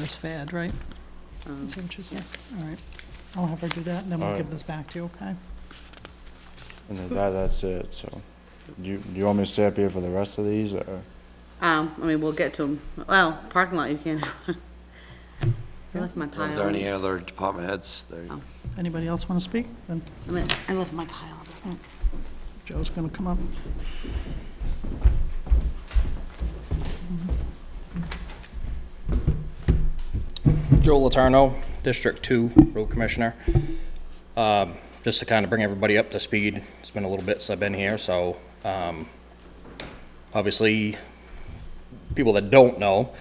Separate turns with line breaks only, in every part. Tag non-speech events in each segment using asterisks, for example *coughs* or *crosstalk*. this fad, right? That's interesting. All right. I'll have her do that, and then we'll
All right.
give this back to you, okay?
And then that, that's it, so. Do you, do you want me to stay up here for the rest of these, or?
Um, I mean, we'll get to them. Well, parking lot, you can. *laughs* I left my pile.
Is there any other department heads? There you-
Anybody else want to speak? Then
I mean, I left my pile.
Joe's going to come up.
Joe Latarno, District Two Road Commissioner. Um, Just to kind of bring everybody up to speed, it's been a little bit since I've been here, so um, obviously, people that don't know,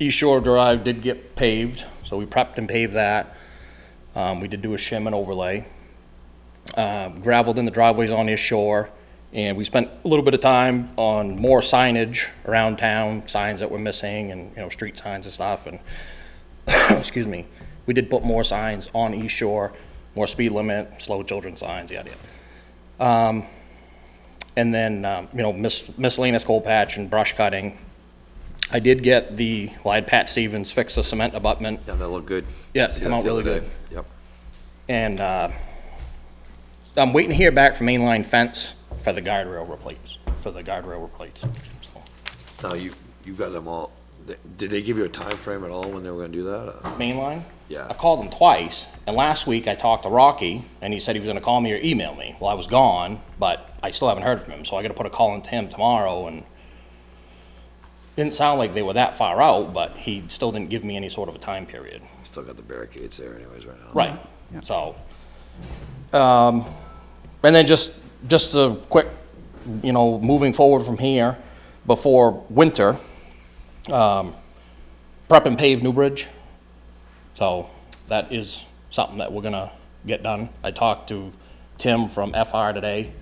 East Shore Drive did get paved, so we prepped and paved that. Um, We did do a shim and overlay. Uh, Gravelled in the driveways on East Shore, and we spent a little bit of time on more signage around town, signs that were missing and, you know, street signs and stuff, and *coughs* excuse me, we did put more signs on East Shore, more speed limit, slow children signs, yada, yada. Um, And then, um, you know, mis- miscellaneous coal patch and brush cutting. I did get the, well, I had Pat Stevens fix the cement abutment,
Yeah, Oh, they look good.
Yeah,
See
come
that
out
the other
really
day. Yep.
and uh, I'm waiting to hear back from mainline fence for the guardrail replates, for the guardrail replates. So,
Now, you, you got them all. They- Did they give you a time frame at all when they were gonna do that? Uh, or-
Mainline?
Yeah.
I called him twice, and last week I talked to Rocky, and he said he was gonna call me or email me. Well, I was gone, but I still haven't heard from him, so I gotta put a call into him tomorrow, and didn't sound like they were that far out, but he still didn't give me any sort of a time period.
Still got the barricades there anyways right now.
Right, so, um, and then just, just a quick, you know, moving forward from here, before winter, um, prep and pave New Bridge. So that is something that we're gonna get done. I talked to Tim from FR today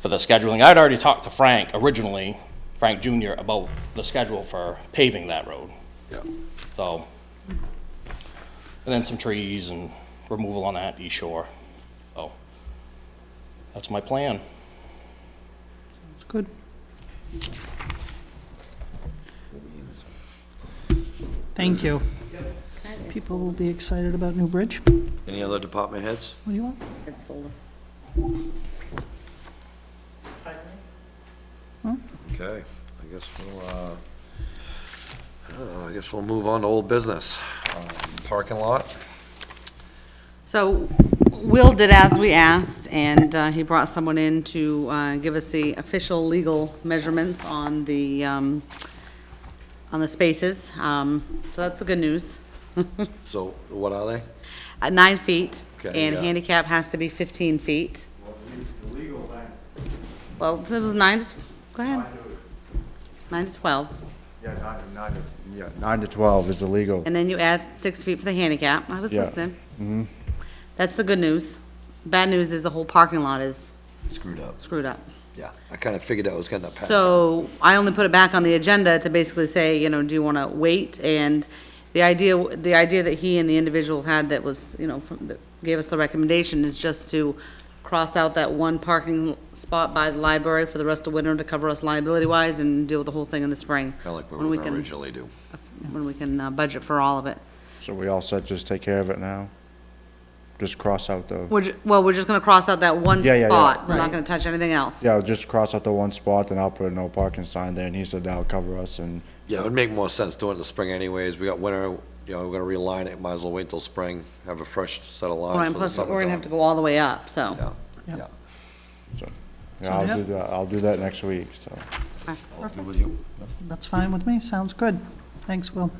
for the scheduling. I'd already talked to Frank originally, Frank Junior, about the schedule for paving that road,
Yeah.
so. And then some trees and removal on that east shore. So that's my plan.
It's good. Thank you. People will be excited about New Bridge. What
Any other department heads?
do you want?
It's full.
Okay, I guess we'll, uh, I don't know, I guess we'll move on to old business. Um, Parking lot?
So Will did as we asked, and uh, he brought someone in to uh, give us the official legal measurements on the, um, on the spaces. Um, So that's the good news. *laughs*
So what are they?
At nine feet,
Okay,
and
yeah.
handicap has to be 15 feet. Well, it was nine, to- go ahead. Nine to 12.
Yeah, nine, nine to. Yeah, nine to twelve is illegal.
And then you add six feet for the handicap. I was
Yeah.
listening. That's the good news. Bad news is the whole parking lot is
Screwed up.
screwed up.
Yeah, I kinda figured that was gonna happen.
So I only put it back on the agenda to basically say, you know, do you want to wait? And the idea, the idea that he and the individual had that was, you know, from, that gave us the recommendation is just to cross out that one parking spot by the library for the rest of winter to cover us liability-wise and deal with the whole thing in the spring.
Kinda like what
when we
we were
can-
gonna originally do.
When we can uh, budget for all of it.
So we all said just take care of it now? Just cross out the,
We're, ju- well, we're just gonna cross out that one
Yeah, yeah, yeah.
spot, we're
Right.
not gonna touch anything else.
yeah, just cross out the one spot, and I'll put a no parking sign there, and he said that'll cover us, and,
Yeah, it would make more sense doing it in the spring anyways. We got winter, you know, we're gonna realign it, might as well wait until spring, have a fresh set of
Well,
lines
and
for the
plus,
summer.
we're gonna have to
done.
go all the way up, so.
Yeah,
Yeah.
yeah.
yeah, I'll do that, I'll do that next week, so.
I'll be with you.
That's fine with me. Sounds good. Thanks, Will.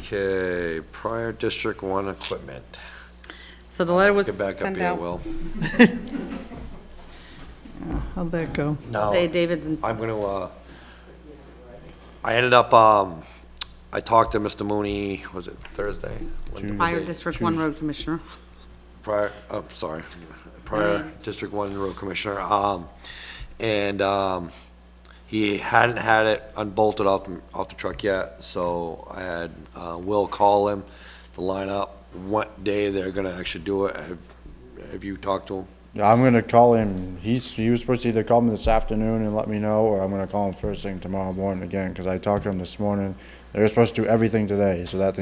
Okay, prior District One equipment.
So the letter was
Get back up
sent
here,
out.
Will.
How'd that go?
No,
They- David's, in-
Mm-hmm.
I'm gonna, uh, I ended up, um, I talked to Mr. Mooney, was it Thursday? When did-
prior
they-
District One Road Commissioner.
Prior, oh, sorry, prior District One Road Commissioner, um, and, um, he hadn't had it unbolted off, the- off the truck yet, so I had, uh, Will call him to line up what day they're gonna actually do it. Have, have you talked to him?
Yeah, I'm gonna call him, he's, he was supposed to either call me this afternoon and let me know, or I'm gonna call him first thing tomorrow morning again, cause I talked to him this morning. They were supposed to do everything today, so that